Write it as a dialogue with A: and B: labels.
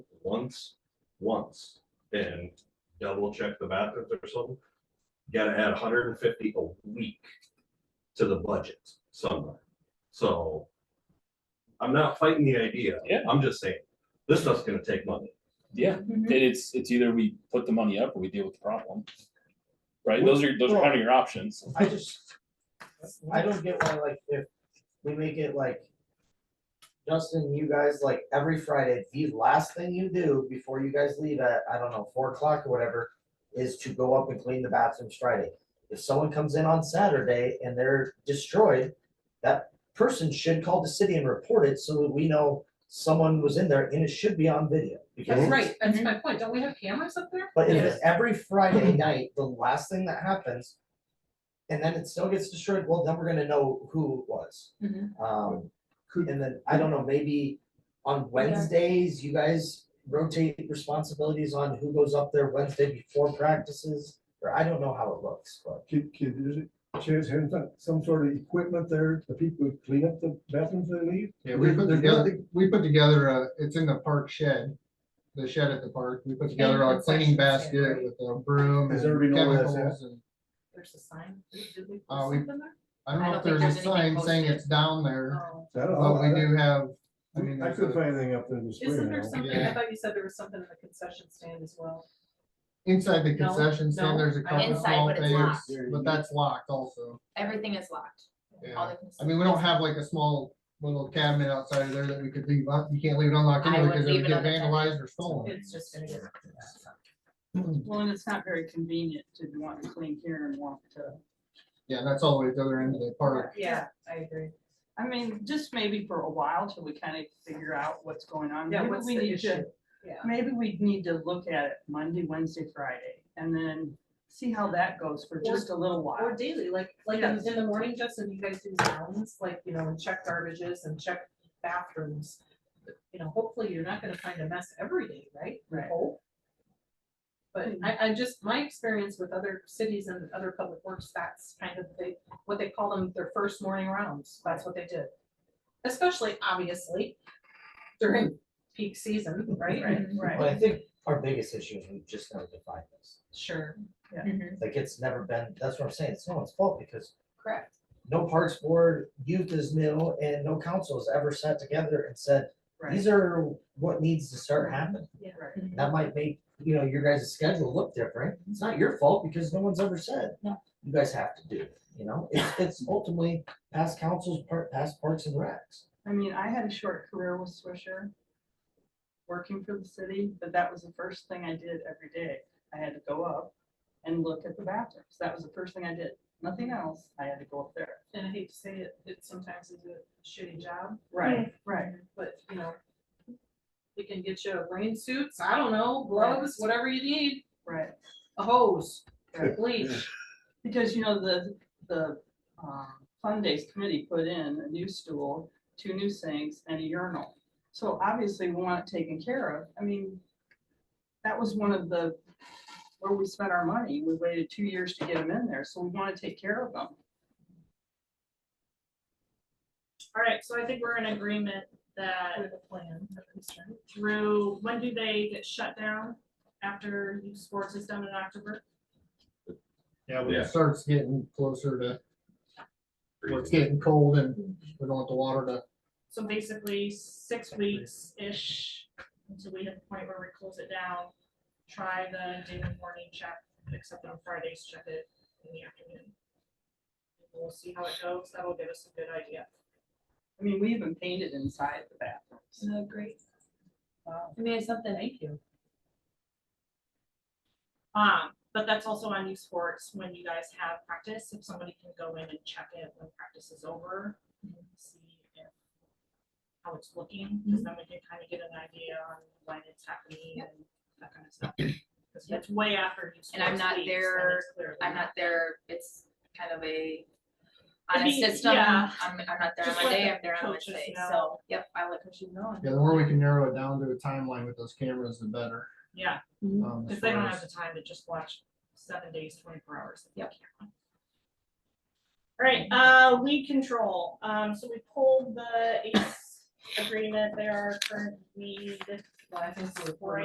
A: once, once, and double check the bathrooms or something. Gotta add hundred and fifty a week to the budget somewhere, so. I'm not fighting the idea.
B: Yeah.
A: I'm just saying, this stuff's gonna take money.
B: Yeah, and it's, it's either we put the money up or we deal with the problem. Right, those are, those are kind of your options.
C: I just, I don't get why, like, if we make it like, Justin, you guys, like, every Friday, the last thing you do before you guys leave at, I don't know, four o'clock or whatever, is to go up and clean the bathrooms Friday. If someone comes in on Saturday and they're destroyed, that person should call the city and report it so that we know someone was in there and it should be on video. because
D: That's
C: it's-
D: right, that's my point, don't we have cameras up there?
C: But if it's every Friday night, the last thing that happens, and then it still gets destroyed, well, then we're gonna know who it was.
D: Mhm.
C: Um, and then, I don't know, maybe on Wednesdays, you guys rotate responsibilities on who goes up there Wednesday before practices, or I don't know how it looks, but.
E: Could, could, is it, chance having some- some sort of equipment there, the people who clean up the bathrooms they leave?
F: Yeah, we put
E: There's
F: together,
E: nothing-
F: we put together, a it's in the park shed, the shed at the park, we put together a
D: concession
F: cleaning
D: stand, right?
F: basket with a broom and
E: Does everybody know where that's
F: chemicals and.
D: There's a sign, did we
F: Uh,
D: put
F: we-
D: something there?
F: I don't
D: I
F: know if
D: don't think
F: there's a
D: there's anything
F: sign saying
D: posted.
F: it's down there,
D: Oh.
E: I don't know.
F: but we do have, I mean,
E: I
F: there's
E: couldn't
F: a-
E: find anything up there this spring.
D: Isn't
E: I
D: there
E: don't-
D: something, I
F: Yeah.
D: thought you said there was something in the concession stand as well.
F: inside the
D: No,
F: concession
D: no,
F: stand, there's a
D: I
F: couple
G: Inside,
F: small
G: but it's
F: things,
G: locked.
F: but that's locked also.
G: Everything is locked. All
F: Yeah, I
G: the.
F: mean, we don't have like a small little cabinet outside of there that we could leave, un- you can't leave it unlocked
G: I
F: anyway,
G: wouldn't
F: because it
G: leave
F: would
G: it
F: get
G: unattended.
F: vandalized or stolen.
G: It's just gonna get.
H: Well, and it's not very convenient to want to clean here and walk to,
F: Yeah, that's all the way to the other end of the park.
D: Yeah, I agree.
H: I mean, just maybe for a while till we kind of figure out what's going on.
D: Yeah,
H: Maybe
D: what's
H: we
D: the
H: need to-
D: issue? Yeah.
H: Maybe we need to look at it Monday, Wednesday, Friday, and then see how that goes for just a little
D: Or
H: while.
D: daily, like, like in,
H: Yes.
D: in the morning, Justin, you guys do rounds, like, you know, and check garbages and check bathrooms. You know, hopefully you're not gonna find a mess every day, right? We
H: Right. Hmm.
D: hope. But I, I just, my experience with other cities and other public works, that's kind of they, what they call them, their first morning rounds, that's what they did. Especially, obviously, during peak season, right?
H: Right,
C: But
H: right.
C: I think our biggest issue is we just never define this,
D: Sure,
C: like, it's never been, that's what I'm saying, it's no one's fault, because
D: correct.
C: no parks board, youth is new, and no council has ever sat together and said,
H: Right,
C: these are what needs to start happening.
H: right.
C: That might make, you know, your guys' schedule look different. It's not your fault because no one's ever said.
G: No.
C: You guys have to do it, you know? It's, it's ultimately past councils, par- past parks and recs.
H: I mean, I had a short career with Swisher, working for the city, but that was the first thing I did every day. I had to go up and look at the bathrooms. That was the first thing I did. Nothing else. I had to go up there.
D: And I hate to say it, it sometimes is a shitty job.
H: Right, right.
D: But, you know. We can get you rain suits, I don't know, gloves, whatever you need,
H: Right.
D: a hose, or a bleach.
H: Because, you know, the, the, um, fund days committee put in a new stool, two new sinks and a urinal. So obviously we want it taken care of. I mean, that was one of the, where we spent our money. We waited two years to get them in there, so we want to take care of them.
I: All right, so I think we're in agreement that
D: With a plan. of concern.
I: through, when do they get shut down after youth sports is done in October?
F: Yeah, when
A: Yeah.
F: it starts getting closer to, where it's getting cold and we don't want the water to
I: So basically, six weeks-ish until we hit the point where we close it down. Try the daily morning check, except on Fridays, check it in the afternoon. We'll see how it goes. That'll give us a good idea.
H: I mean, we even painted inside the bathrooms.
D: No, great.
H: Wow.
D: I mean, it's something, thank you.
I: Um, but that's also on youth sports when you guys have practice, if somebody can go in and check it when practice is over. and See if how it's looking,
G: Mm-hmm.
I: because then we can kind of get an idea on when it's happening and that kind of stuff. Because it's way after youth sports.
G: And I'm not
I: leagues, then
G: there-
I: it's clearly
G: I'm not there, it's kind of a, on
I: I
G: a
I: mean,
G: system, I'm,
I: yeah.
G: I'm not there on
I: Just
G: my
I: let
G: day,
I: the
G: I'm there on
I: coaches
G: Wednesday, so,
I: know.
G: yep, I let coaches know.
F: Yeah, the more we can narrow it down to a timeline with those cameras, the better.
I: Yeah,
F: um, as
I: because Mm-hmm. they don't
F: far
I: have
F: as-
I: the time to just watch seven days, twenty-four hours. of the
G: Yep.
I: camera. All right, uh, weed control, um, so we pulled the ACE agreement, they are current weed
D: Well, I think we're-
I: Right.